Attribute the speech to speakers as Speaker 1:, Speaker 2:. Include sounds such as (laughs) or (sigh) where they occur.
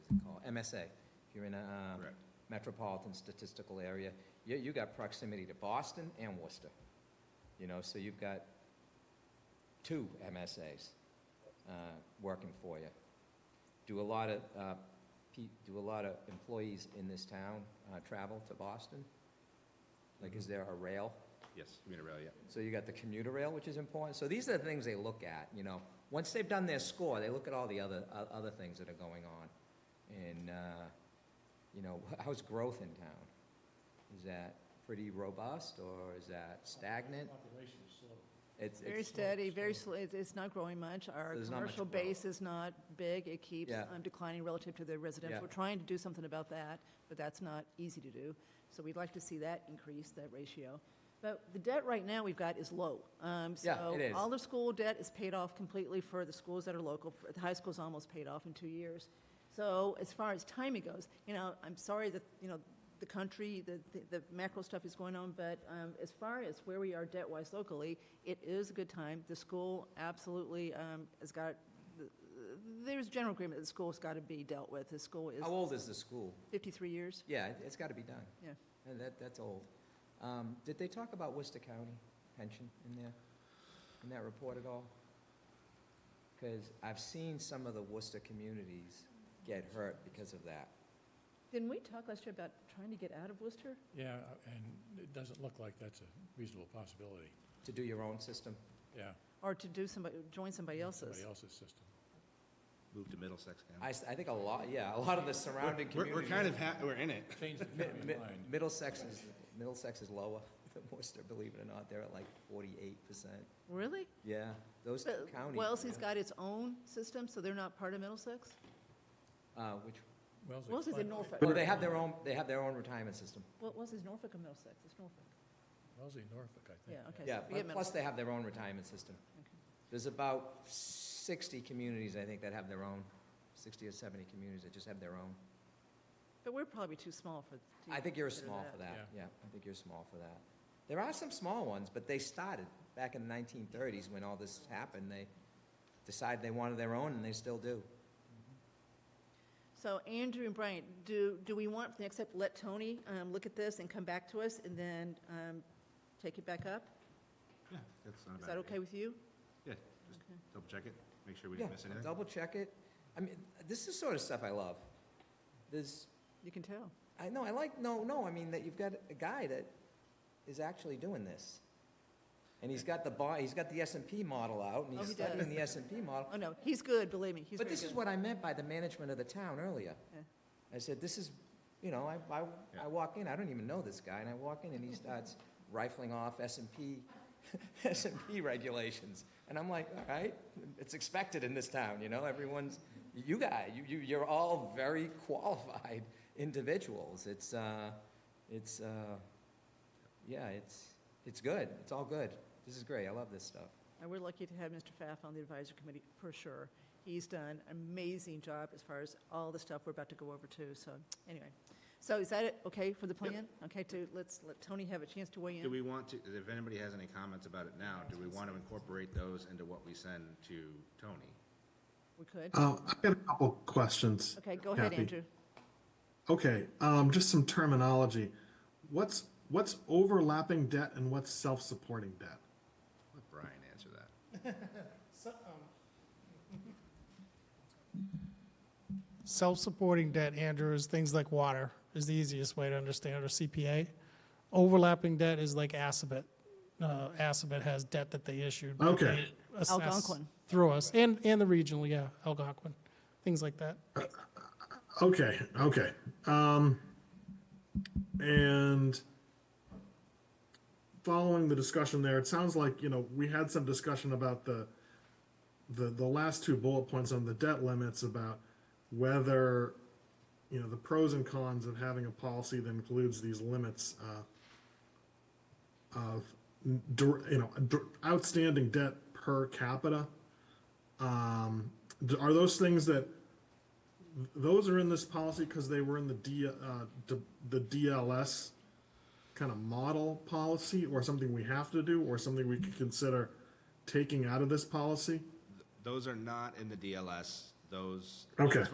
Speaker 1: MSA, you're in a um,
Speaker 2: Correct.
Speaker 1: metropolitan statistical area, you, you got proximity to Boston and Worcester, you know, so you've got two MSAs uh, working for you. Do a lot of, uh, pe- do a lot of employees in this town uh, travel to Boston? Like, is there a rail?
Speaker 2: Yes, commuter rail, yeah.
Speaker 1: So you got the commuter rail, which is important. So these are the things they look at, you know. Once they've done their score, they look at all the other, o- other things that are going on. And, uh, you know, (laughs) how's growth in town? Is that pretty robust or is that stagnant?
Speaker 3: Population is slow.
Speaker 1: It's,
Speaker 4: Very
Speaker 1: it's,
Speaker 4: steady, very
Speaker 3: slow.
Speaker 4: slow, it's it's not growing much. Our
Speaker 1: There's not much
Speaker 4: commercial
Speaker 1: growth.
Speaker 4: base is not big, it keeps
Speaker 1: Yeah.
Speaker 4: um, declining relative to the residential.
Speaker 1: Yeah.
Speaker 4: We're trying to do something about that, but that's not easy to do. So we'd like to see that increase, that ratio. But the debt right now we've got is low. Um,
Speaker 1: Yeah, it is.
Speaker 4: So all the school debt is paid off completely for the schools that are local. For- The high school's almost paid off in two years. So as far as timing goes, you know, I'm sorry that, you know, the country, the, the- the macro stuff is going on, but um, as far as where we are debt-wise locally, it is a good time. The school absolutely um, has got, there's general agreement that the school's got to be dealt with. The school is
Speaker 1: how old is the school?
Speaker 4: 53 years,
Speaker 1: Yeah, it- it's got to be done.
Speaker 4: yeah.
Speaker 1: And That, that's old. Um, Did they talk about Worcester County pension in there, in that report at all? Because I've seen some of the Worcester communities get hurt because of that.
Speaker 4: Didn't we talk last year about trying to get out of Worcester?
Speaker 3: Yeah, uh, and it doesn't look like that's a reasonable possibility.
Speaker 1: To do your own system?
Speaker 3: Yeah,
Speaker 4: Or to do somebody, join somebody else's?
Speaker 3: somebody else's system.
Speaker 2: Move to Middlesex
Speaker 1: I,
Speaker 2: County.
Speaker 1: s- I think a lot, yeah, a lot of the surrounding
Speaker 5: We're,
Speaker 1: communities.
Speaker 5: we're kind of, ha- we're in it.
Speaker 3: Change the county
Speaker 1: Mi- mi-
Speaker 3: line.
Speaker 1: Middlesex is, Middlesex is lower (laughs) than Worcester, believe it or not. They're at like forty-eight percent.
Speaker 4: Really?
Speaker 1: Yeah, those two
Speaker 4: But
Speaker 1: counties.
Speaker 4: Wellesley's
Speaker 1: yeah.
Speaker 4: got its own system, so they're not part of Middlesex?
Speaker 1: Uh, which,
Speaker 3: Wellesley's
Speaker 4: Wellesley's in
Speaker 3: fin-
Speaker 4: Norfolk.
Speaker 1: well, they have their own, they have their own retirement system.
Speaker 4: What was his Norfolk or Middlesex? It's Norfolk.
Speaker 3: Wellesley, Norfolk, I think.
Speaker 4: Yeah, okay.
Speaker 1: Yeah,
Speaker 4: so forget
Speaker 1: plus they have their own retirement system. There's about 60 communities, I think, that have their own, 60 or 70 communities that just have their own.
Speaker 4: But we're probably too small for. to
Speaker 1: I think you're
Speaker 4: consider
Speaker 1: small for that,
Speaker 3: Yeah.
Speaker 1: yeah, I think you're small for that. There are some small ones, but they started back in the 1930s when all this happened. They decided they wanted their own, and they still do.
Speaker 4: So Andrew and Brian, do, do we want, for the next step, let Tony um, look at this and come back to us and then um, take it back up?
Speaker 2: Yeah, that's not a
Speaker 4: Is
Speaker 2: bad
Speaker 4: that
Speaker 2: idea.
Speaker 4: okay with you?
Speaker 2: Yeah, just double check it, make sure we
Speaker 1: Yeah,
Speaker 2: didn't miss anything.
Speaker 1: double check it. I mean, this is sort of stuff I love. There's,
Speaker 4: You can tell.
Speaker 1: I know, I like, no, no, I mean, that you've got a guy that is actually doing this. And he's got the bar, he's got the S and P model out, and
Speaker 4: Oh,
Speaker 1: he's
Speaker 4: he does.
Speaker 1: studying the S and P model.
Speaker 4: Oh, no, he's good, believe me, he's
Speaker 1: But
Speaker 4: very
Speaker 1: this is
Speaker 4: good.
Speaker 1: what I meant by the management of the town earlier.
Speaker 4: Yeah.
Speaker 1: I said, this is, you know, I, I, I
Speaker 2: Yeah.
Speaker 1: walk in, I don't even know this guy, and I walk in and
Speaker 4: (laughs)
Speaker 1: he starts rifling off S and P, (laughs) S and P regulations. And I'm like, all right, it's expected in this town, you know, everyone's, you guys, you, you, you're all very qualified (laughs) individuals. It's, uh, it's, uh, yeah, it's, it's good, it's all good. This is great, I love this stuff.
Speaker 4: And we're lucky to have Mr. Pfaff on the advisory committee, for sure. He's done an amazing job as far as all the stuff we're about to go over too, so, anyway. So is that it, okay, for the plan? Okay, to, let's let Tony have a chance to weigh in?
Speaker 2: Do we want to, if anybody has any comments about it now, do we want to incorporate those into what we send to Tony?
Speaker 4: We could?
Speaker 6: Uh, I've got a couple questions.
Speaker 4: Okay, go ahead,
Speaker 6: Kathy.
Speaker 4: Andrew.
Speaker 6: Okay, um, just some terminology. What's what's overlapping debt and what's self-supporting debt?
Speaker 2: Let Brian answer that.
Speaker 7: Self-supporting debt, Andrew, is things like water is the easiest way to understand, or CPA. Overlapping debt is like Assabet. Uh, Assabet has debt that they issued. that they
Speaker 6: Okay.
Speaker 7: assess
Speaker 4: Algonquin.
Speaker 7: Through us, and, and the regional, yeah, Algonquin, things like that.
Speaker 6: Okay, okay. Um, and following the discussion there, it sounds like you know we had some discussion about the the the last two bullet points on the debt limits about whether you know the pros and cons of having a policy that includes these limits uh, of dir- you know dir- outstanding debt per capita. Um, d- are those things that those are in this policy because they were in the D, uh, d- the DLS kind of model policy, or something we have to do, or something we could consider taking out of this policy.
Speaker 2: Those are not in the DLS, those.
Speaker 6: Okay.